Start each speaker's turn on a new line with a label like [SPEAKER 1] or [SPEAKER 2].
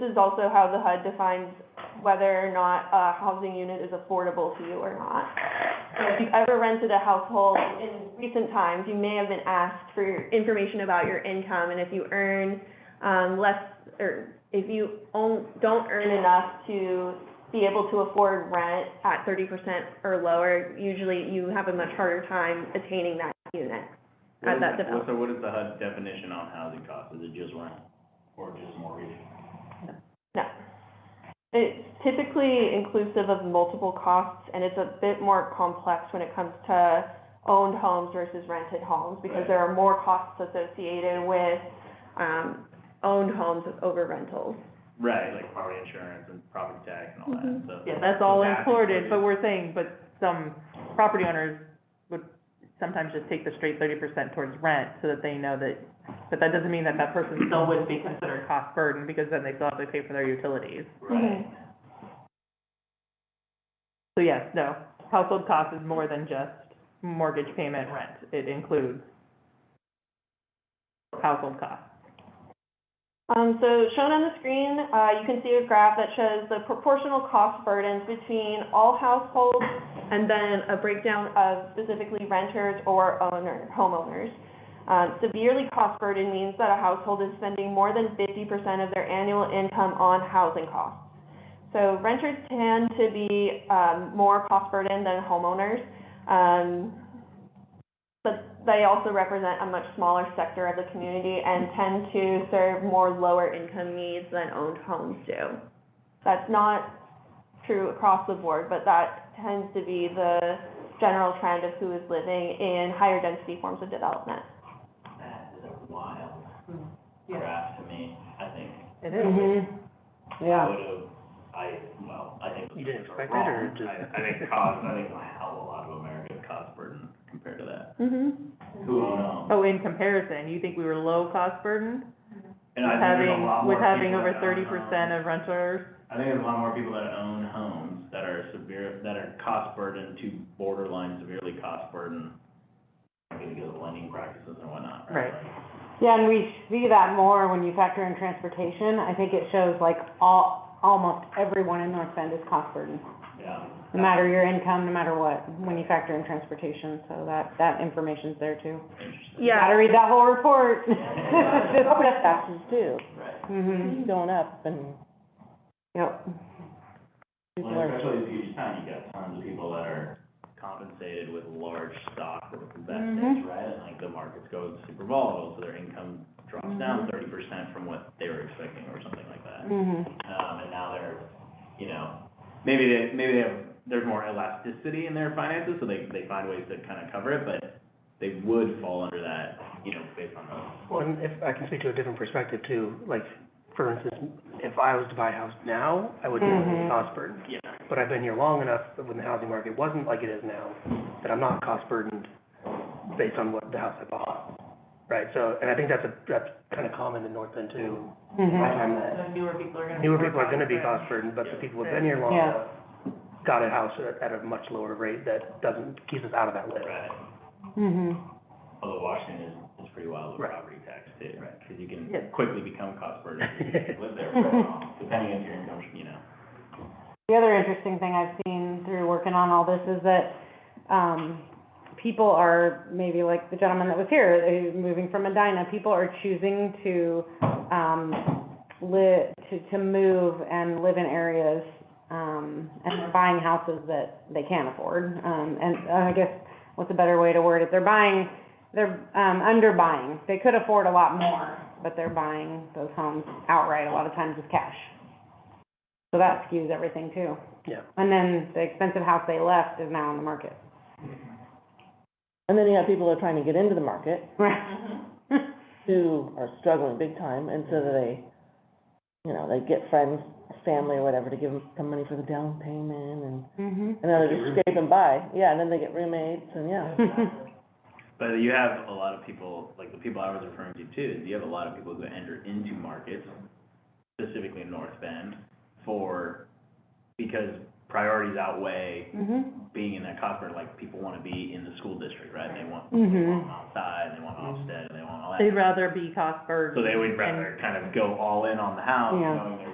[SPEAKER 1] This is also how the HUD defines whether or not a housing unit is affordable to you or not. So if you've ever rented a household in recent times, you may have been asked for your information about your income and if you earn, um, less, or if you own, don't earn enough to be able to afford rent at thirty percent or lower, usually you have a much harder time attaining that unit. at that develop-
[SPEAKER 2] So what is the HUD definition on housing cost? Is it just rent or just mortgage?
[SPEAKER 1] It's typically inclusive of multiple costs, and it's a bit more complex when it comes to owned homes versus rented homes, because
[SPEAKER 2] Right.
[SPEAKER 1] there are more costs associated with, um, owned homes over rentals.
[SPEAKER 2] Right, like property insurance and property tax and all that,
[SPEAKER 1] Mhm.
[SPEAKER 2] so.
[SPEAKER 3] Yeah, that's all
[SPEAKER 2] That's
[SPEAKER 3] included, but
[SPEAKER 2] included.
[SPEAKER 3] we're saying, but some property owners would sometimes just take the straight thirty percent towards rent so that they know that, but that doesn't mean that that person still wouldn't be considered cost burden because then they still have to pay for their utilities.
[SPEAKER 2] Right.
[SPEAKER 3] So yes, no, household cost is more than just mortgage payment, rent. It includes household cost.
[SPEAKER 1] Um, so shown on the screen, uh, you can see a graph that shows the proportional cost burdens between all households and then a breakdown of specifically renters or owner, homeowners. Um, severely cost burden means that a household is spending more than fifty percent of their annual income on housing costs. So renters tend to be, um, more cost burdened than homeowners. Um, but they also represent a much smaller sector of the community and tend to serve more lower income needs than owned homes do. That's not true across the board, but that tends to be the general trend of who is living in higher density forms of development.
[SPEAKER 2] That is a wild
[SPEAKER 3] Mm, yeah.
[SPEAKER 2] graph to me, I think.
[SPEAKER 3] It
[SPEAKER 2] I
[SPEAKER 4] Yeah,
[SPEAKER 2] would've, I, well, I think.
[SPEAKER 5] You didn't
[SPEAKER 2] those
[SPEAKER 5] expect
[SPEAKER 2] are
[SPEAKER 5] it, or
[SPEAKER 2] wrong.
[SPEAKER 5] just-
[SPEAKER 2] I, I think cost, I think a hell of a lot of America is cost burden compared to that.
[SPEAKER 1] Mm-hmm.
[SPEAKER 2] Who would know?
[SPEAKER 3] Oh, in comparison, you think we were low cost burden?
[SPEAKER 2] And I think there's a lot
[SPEAKER 3] With
[SPEAKER 2] more
[SPEAKER 3] having, with having
[SPEAKER 2] people
[SPEAKER 3] over
[SPEAKER 2] that
[SPEAKER 3] thirty
[SPEAKER 2] own
[SPEAKER 3] percent of renters
[SPEAKER 2] I think there's a lot more people that own homes that are severe, that are cost burdened to borderline severely cost burdened. Because of lending practices and whatnot, right?
[SPEAKER 4] yeah, and we see that more when you factor in transportation. I think it shows like all, almost everyone in North Bend is cost burdened.
[SPEAKER 2] Yeah.
[SPEAKER 4] No matter your income, no matter what, when you factor in transportation, so that, that information's there too.
[SPEAKER 2] Interesting.
[SPEAKER 1] Yeah.
[SPEAKER 4] Gotta read that whole report. Taxes too.
[SPEAKER 2] Right.
[SPEAKER 4] hmm
[SPEAKER 3] going up and.
[SPEAKER 4] yep. People
[SPEAKER 2] Well,
[SPEAKER 4] are-
[SPEAKER 2] especially in Puget Sound, you got tons of people that are compensated with large stock with investments,
[SPEAKER 4] Mhm.
[SPEAKER 2] right? And like the markets go super volatile, so their income drops down thirty percent from what they were expecting or something like that.
[SPEAKER 4] Mhm.
[SPEAKER 2] Um, and now they're, you know, maybe they, maybe they have, there's more elasticity in their finances, so they, they find ways to kind of cover it, but they would fall under that, you know, based on those.
[SPEAKER 5] Well, and if I can speak to a different perspective too, like, for instance, if I was to buy a house now, I would be
[SPEAKER 4] Mhm.
[SPEAKER 5] cost burdened.
[SPEAKER 2] Yeah.
[SPEAKER 5] But I've been here long enough that when the housing market wasn't like it is now, that I'm not cost burdened based on what the house I bought. Right, so, and I think that's a, that's kind of common in North Bend too. I
[SPEAKER 4] Mhm.
[SPEAKER 5] find that
[SPEAKER 3] newer people are gonna.
[SPEAKER 5] newer people are gonna be cost burdened, but the people who've been here long
[SPEAKER 4] Yeah.
[SPEAKER 5] enough got a house at, at a much lower rate that doesn't, keeps us out of that list.
[SPEAKER 2] Right.
[SPEAKER 4] Mhm.
[SPEAKER 2] Although Washington is, is pretty wild with
[SPEAKER 5] Right.
[SPEAKER 2] property tax too, right? Because you can
[SPEAKER 3] Yeah.
[SPEAKER 2] quickly become cost burdened if you live there for a while, depending on your income, you know.
[SPEAKER 4] The other interesting thing I've seen through working on all this is that, um, people are, maybe like the gentleman that was here, who's moving from Medina, people are choosing to, um, li, to, to move and live in areas, um, and they're buying houses that they can't afford. Um, and uh, I guess, what's a better way to word it? They're buying, they're, um, underbuying. They could afford a lot more, but they're buying those homes outright, a lot of times with cash. So that skews everything too.
[SPEAKER 5] Yeah.
[SPEAKER 4] And then the expensive house they left is now on the market.
[SPEAKER 6] And then you have people that are trying to get into the market
[SPEAKER 4] Right.
[SPEAKER 6] who are struggling big time, and so they, you know, they get friends, family or whatever to give them some money for the down payment and,
[SPEAKER 4] Mhm.
[SPEAKER 6] and then they just scrape and buy. Yeah, and then they get roommates and, yeah.
[SPEAKER 2] But you have a lot of people, like the people I was referring to too, is you have a lot of people who enter into markets, specifically in North Bend, for, because priorities outweigh
[SPEAKER 4] Mhm.
[SPEAKER 2] being in that copper, like people wanna be in the school district, right? They want, they want
[SPEAKER 4] Mhm.
[SPEAKER 2] Mount Side, they want Olmsted, and they want all that.
[SPEAKER 3] They'd rather be cost burdened.
[SPEAKER 2] So they would
[SPEAKER 3] and-
[SPEAKER 2] rather kind of go all in on the house,
[SPEAKER 4] Yeah.
[SPEAKER 2] knowing they're